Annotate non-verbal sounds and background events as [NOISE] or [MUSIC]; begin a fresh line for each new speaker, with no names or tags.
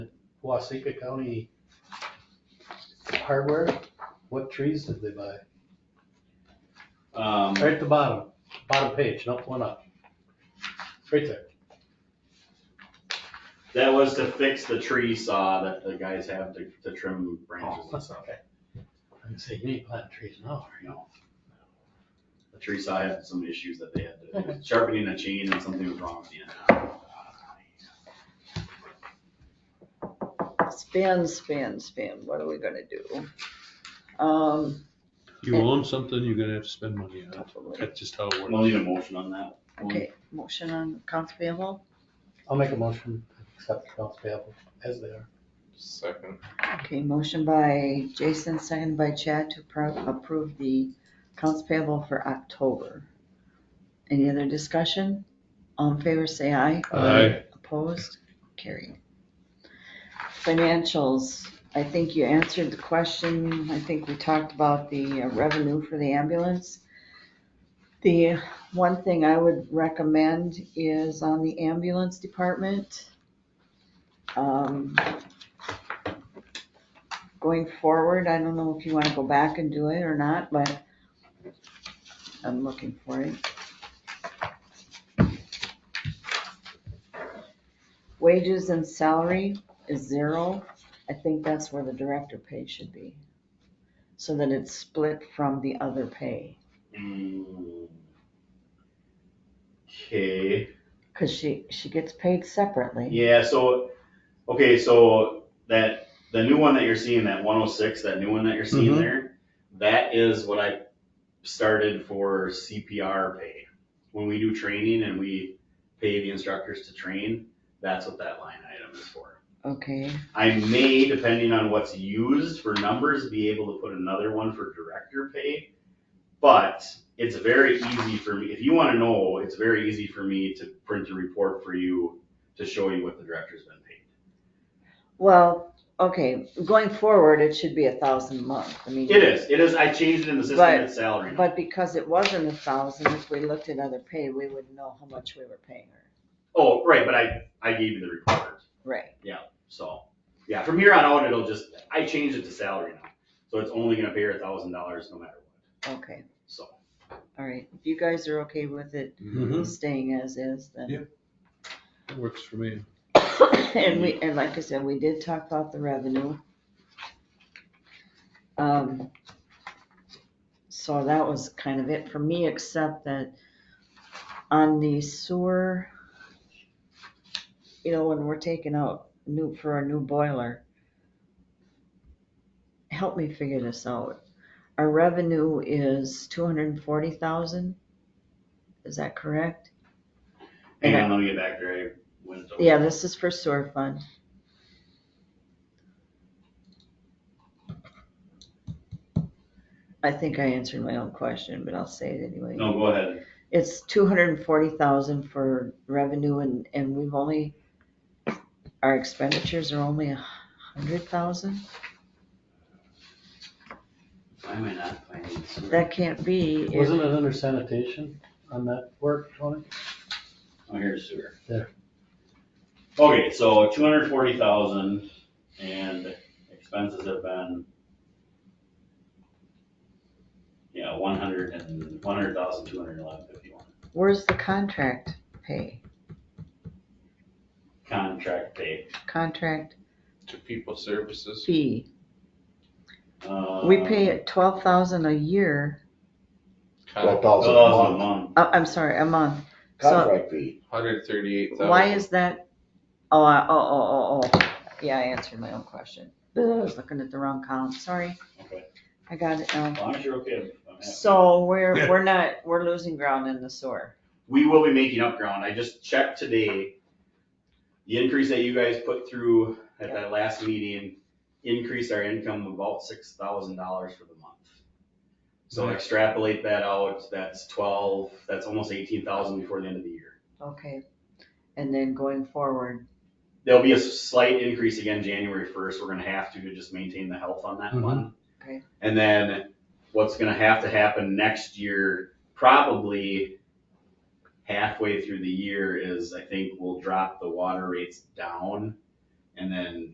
Wasika County hardware, what trees did they buy?
Um,
Right at the bottom, bottom page, not one up. Right there.
that was to fix the tree saw that the guys have to, to trim branches and stuff.
okay. I say, you need planting trees now,
You know, The tree saw had some issues that they had to, sharpening a chain and something was wrong with the end.
Spin, spin, spin, what are we gonna do? Um,
You own something, you're gonna have to spend money on it.
probably,
That's just how it
We'll need
works.
a motion on that. one.
okay, motion on accounts payable,
I'll make a motion, to accept the accounts payable as they are.
Second.
okay, motion by Jason, second by Chad to pro- approve the accounts payable for October. Any other discussion? All in favor, say aye.
Aye.
Opposed? Carried. Financials, I think you answered the question. I think we talked about the uh, revenue for the ambulance. The one thing I would recommend is on the ambulance department. um, Going forward, I don't know if you want to go back and do it or not, but I'm looking for it. Wages and salary is zero. I think that's where the director pay should be. So that it's split from the other pay,
Mm. Okay,
cause she, she gets paid separately.
yeah, so, okay, so that, the new one that you're seeing, that one oh six, that new one that you're seeing
Mhm.
there, that is what I started for CPR pay. When we do training and we pay the instructors to train, that's what that line item is for.
Okay,
I may, depending on what's used for numbers, be able to put another one for director pay. But it's very easy for me, if you wanna know, it's very easy for me to print a report for you to show you what the director's been paid.
well, okay, going forward, it should be a thousand a month. I mean.
It is, it is, I changed it in the system,
But-
it's salary now.
But because it wasn't a thousand, if we looked at other pay, we would know how much we were paying her.
Oh, right, but I, I gave you the report,
Right,
so, yeah, from here on out, it'll just, I changed it to salary now. So it's only gonna pay her a thousand dollars no matter what,
okay,
so.
all right. If you guys are okay with it
Mm-hmm.
Mhm.
staying as is, then.
Yeah. It Works for me.
[COUGHS] And we, and like I said, we did talk about the revenue. Um, so that was kind of it for me, except that on the sewer, you know, when we're taking out new, for a new boiler, help me figure this out. Our revenue is two hundred and forty thousand? Is that correct?
Hang on, let me get back there, I went over.
Yeah, this is for sewer fund. I think I answered my own question, but I'll say it anyway.
No, go ahead.
It's two hundred and forty thousand for revenue and, and we've only, our expenditures are only a hundred thousand?
Why am I not finding this?
That can't be. if-
Wasn't it under sanitation on that work, Tony?
Oh, here's sewer.
There.
Okay, so two hundred forty thousand and expenses have been. Yeah, one hundred and, one hundred thousand, two hundred eleven fifty-one.
Where's the contract pay?
Contract pay.
Contract
To people services.
fee.
uh,
We pay twelve thousand a year,
Twelve thousand a
Thousand a
month,
month.
oh, I'm sorry, a month. So-
contract fee.
Hundred thirty-eight thousand.
Why is that? Oh, I- oh, oh, oh, oh, yeah, I answered my own question. I was looking at the wrong column, sorry,
Okay,
I got it now.
as long as you're okay. I'm- I'm happy.
So we're, we're not, we're losing ground in the sewer.
We will be making up ground. I just checked today. The increase that you guys put through at that last meeting increased our income about six thousand dollars for the month. So
Nice.
extrapolate that out, that's twelve, that's almost eighteen thousand before the end of the year.
Okay, and then going forward,
There'll be a slight increase again January first. We're gonna have to to just maintain the health on that
Mhm.
one.
Okay.
And then what's gonna have to happen next year, probably halfway through the year is I think we'll drop the water rates down. And then